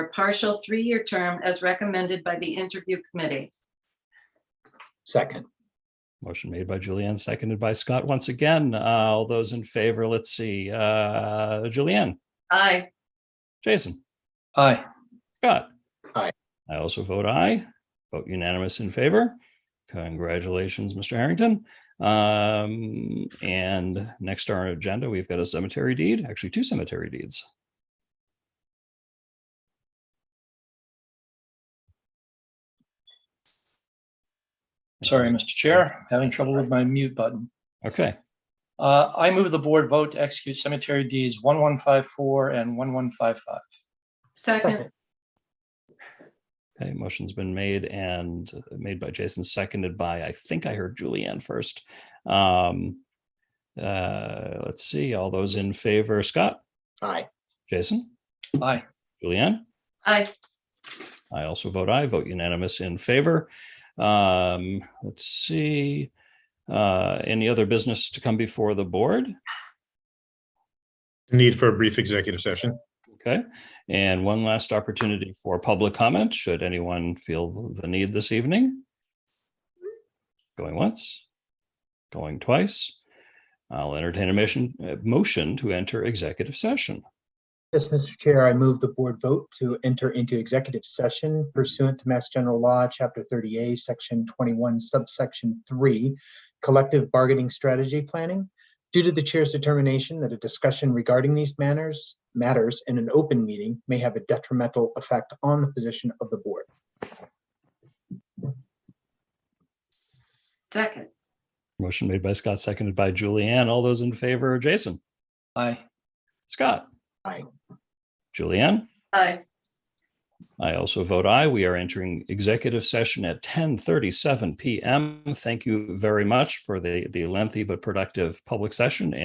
partial three-year term as recommended by the interview committee. Second, Motion made by Julianne, seconded by Scott. Once again, uh, all those in favor, let's see, uh, Julianne, Aye. Jason, aye, Scott. Aye. I also vote aye. Vote unanimous in favor. Congratulations, Mr. Harrington. Um, and next on our agenda, we've got a cemetery deed, actually two cemetery deeds. sorry, Mr. Chair, having trouble with my mute button. Okay, Uh, I move the board vote to execute cemetery deeds one one five four and one one five five. Second, okay, motion's been made and uh, made by Jason, seconded by, I think I heard Julianne first. Um, uh, let's see, all those in favor, Scott, aye, Jason, Aye, Julianne? aye. I also vote aye, vote unanimous in favor. Um, let's see. Uh, any other business to come before the board? Need for a brief executive session. Okay, and one last opportunity for public comment, should anyone feel the need this evening? Going once, going twice. I'll entertain a motion, a motion to enter executive session. Yes, Mr. Chair, I move the board vote to enter into executive session pursuant to Mass General Law, Chapter 30A, Section 21, Subsection 3, Collective Bargaining Strategy Planning. Due to the chair's determination that a discussion regarding these manners, matters in an open meeting may have a detrimental effect on the position of the board. Second, Motion made by Scott, seconded by Julianne. All those in favor, Jason, aye. Scott? Aye. Julianne? aye. I also vote aye. We are entering executive session at 10:37 PM. Thank you very much for the the lengthy but productive public session